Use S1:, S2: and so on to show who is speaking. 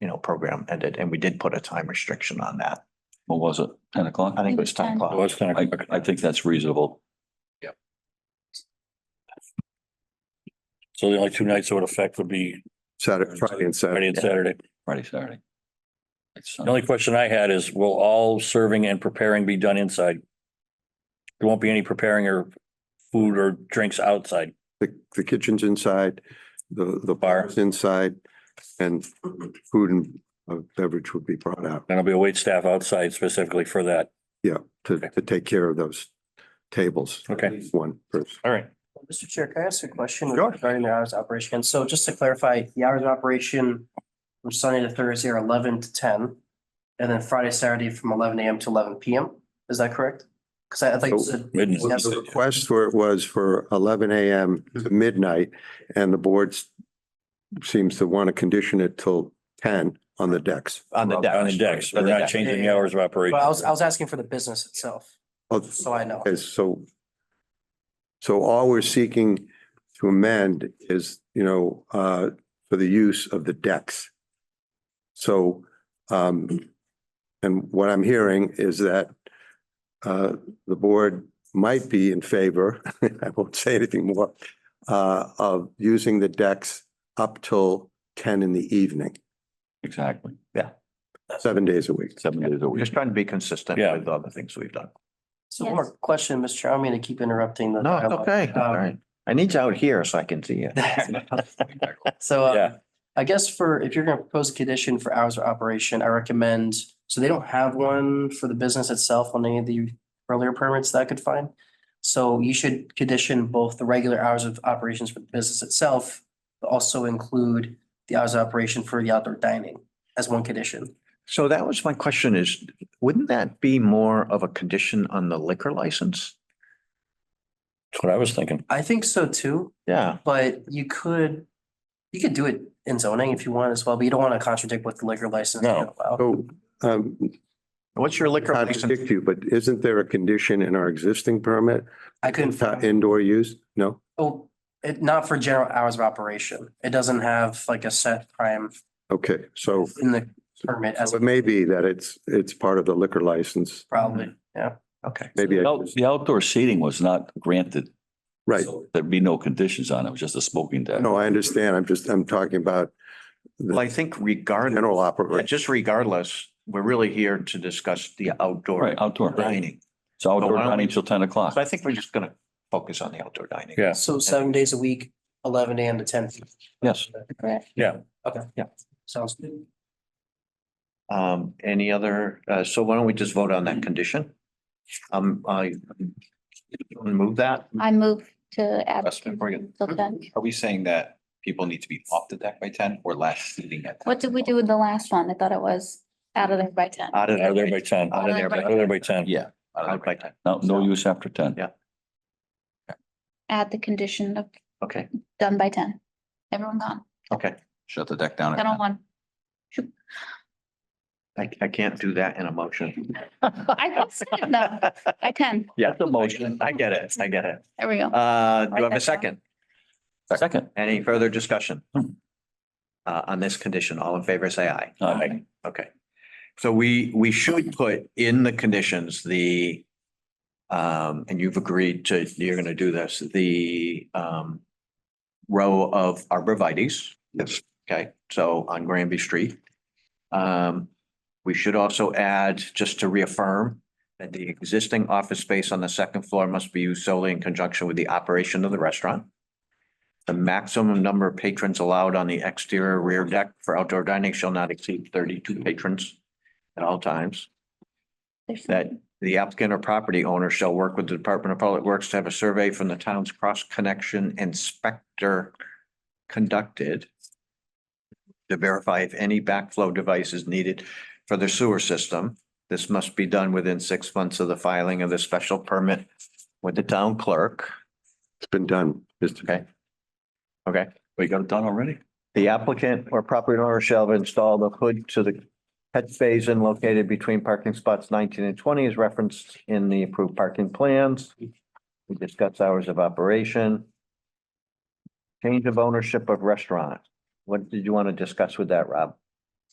S1: you know, program ended, and we did put a time restriction on that.
S2: What was it? Ten o'clock?
S1: I think it was ten
S3: It
S1: o'clock.
S4: was ten
S2: I,
S4: o'clock.
S2: I think that's reasonable.
S4: So the only two nights it would affect would be
S5: Saturday, Friday
S4: Friday
S5: and Saturday.
S4: and Saturday.
S2: Friday, Saturday. It's, uh,
S4: The only question I had is, will all serving and preparing be done inside? There won't be any preparing or food or drinks outside.
S5: The, the kitchen's inside, the, the
S4: Bar.
S5: bar's inside, and food and uh, beverage would be brought out.
S4: And there'll be a wait staff outside specifically for that.
S5: Yeah, to, to take care of those tables.
S4: Okay.
S5: At least One person.
S4: All right.
S6: Mr. Chair, can I ask a question
S5: Sure.
S6: regarding the hours of operation? So just to clarify, the hours of operation from Sunday to Thursday are eleven to ten, and then Friday, Saturday from eleven AM to eleven PM. Is that correct? Because I I think,
S5: So-
S6: it's-
S4: Midnight.
S5: Well, The request for it was for eleven AM to midnight, and the board seems to want to condition it till ten on the decks.
S1: On the deck.
S4: On the decks.
S1: On
S4: We're
S1: the
S4: not
S1: deck.
S4: changing the hours of
S6: but
S4: operation.
S6: I was, I was asking for the business itself,
S5: Oh,
S6: so I know.
S5: Okay, so, so all we're seeking to amend is, you know, uh, for the use of the decks. So, um, and what I'm hearing is that, uh, the board might be in favor, I won't say anything more, uh, of using the decks up till ten in the evening,
S2: Exactly,
S5: seven days a week.
S2: seven days
S1: We're
S2: a week.
S1: just trying to be consistent
S4: Yeah.
S1: with the other things we've done.
S6: So one more question, Mr. Chair. I'm going to keep interrupting the.
S1: No, it's
S6: dialogue.
S1: okay,
S6: Um,
S1: all right. I need you out here so I can see you.
S6: So
S4: Yeah.
S6: uh, I guess for, if you're gonna propose a condition for hours of operation, I recommend, so they don't have one for the business itself on any of the earlier permits that I could find. So you should condition both the regular hours of operations for the business itself, but also include the hours of operation for the outdoor dining as one condition.
S1: So that was my question is, wouldn't that be more of a condition on the liquor license?
S4: That's what I was thinking.
S6: I think so too,
S1: Yeah,
S6: but you could, you could do it in zoning if you want as well, but you don't want to contradict what the liquor license.
S4: No.
S6: would allow.
S5: So, um,
S1: what's your liquor license?
S5: contradict you, but isn't there a condition in our existing permit
S6: I couldn't.
S5: Uh, Indoor use? No?
S6: Oh, it, not for general hours of operation. It doesn't have like a set time
S5: Okay, so
S6: in the permit as
S5: so it may be that it's, it's part of the liquor license.
S6: probably, yeah.
S1: Okay.
S5: Maybe, I-
S2: The out- the outdoor seating was not granted.
S5: right.
S2: So There'd be no conditions on it. It was just a smoking deck.
S5: No, I understand. I'm just, I'm talking about
S1: Well, I think regardless,
S5: general
S1: yeah,
S5: operation.
S1: just regardless, we're really here to discuss the outdoor
S2: Right, outdoor.
S1: dining.
S2: So outdoor
S1: Why don't
S2: dining
S1: we-
S2: till ten o'clock.
S1: So I think we're just gonna focus on the outdoor dining.
S4: Yeah.
S6: So seven days a week, eleven AM to ten.
S2: Yes.
S3: Correct.
S6: Okay.
S1: Yeah.
S6: Sounds good.
S1: Um, any other, uh, so why don't we just vote on that condition? Um, I move that.
S3: I move to add.
S7: Question for you.
S3: till 10.
S7: Are we saying that people need to be off the deck by ten or last seating at? 10?
S3: What did we do with the last one? I thought it was out of there by ten.
S1: Out of
S4: Out of there
S1: there.
S4: by ten.
S1: Out of there.
S4: Out of there by ten.
S2: Yeah.
S7: Out of the-
S2: No, no use after ten.
S1: Yeah.
S3: Add the condition of
S1: Okay,
S3: done by ten. Everyone gone.
S1: okay.
S7: Shut the deck down. at
S3: Ten on
S7: 10.
S3: one.
S1: I, I can't do that in a motion.
S3: I thought so, no. By ten.
S1: Yeah, the motion. I get it. I get it.
S3: There we go.
S1: Uh, do I have a second?
S2: Second.
S1: Any further discussion?
S2: Hmm.
S1: Uh, on this condition, all in favor, say aye.
S2: Aye.
S1: Okay. So we, we should put in the conditions, the, um, and you've agreed to, you're gonna do this, the, um, row of arborvitae's. Yes. Okay, so on Granby Street. Um, we should also add, just to reaffirm, that the existing office space on the second floor must be used solely in conjunction with the operation of the restaurant. The maximum number of patrons allowed on the exterior rear deck for outdoor dining shall not exceed thirty-two patrons at all times.
S3: There's-
S1: That the applicant or property owner shall work with the Department of Public Works to have a survey from the town's cross-connection inspector conducted to verify if any backflow device is needed for the sewer system. This must be done within six months of the filing of the special permit with the town clerk.
S5: It's been done. Mr.
S1: Okay. Okay.
S2: We got it done already?
S1: The applicant or property owner shall install the hood to the catch basin located between parking spots nineteen and twenty is referenced in the approved parking plans. We discuss hours of operation. Change of ownership of restaurant. What did you want to discuss with that, Rob?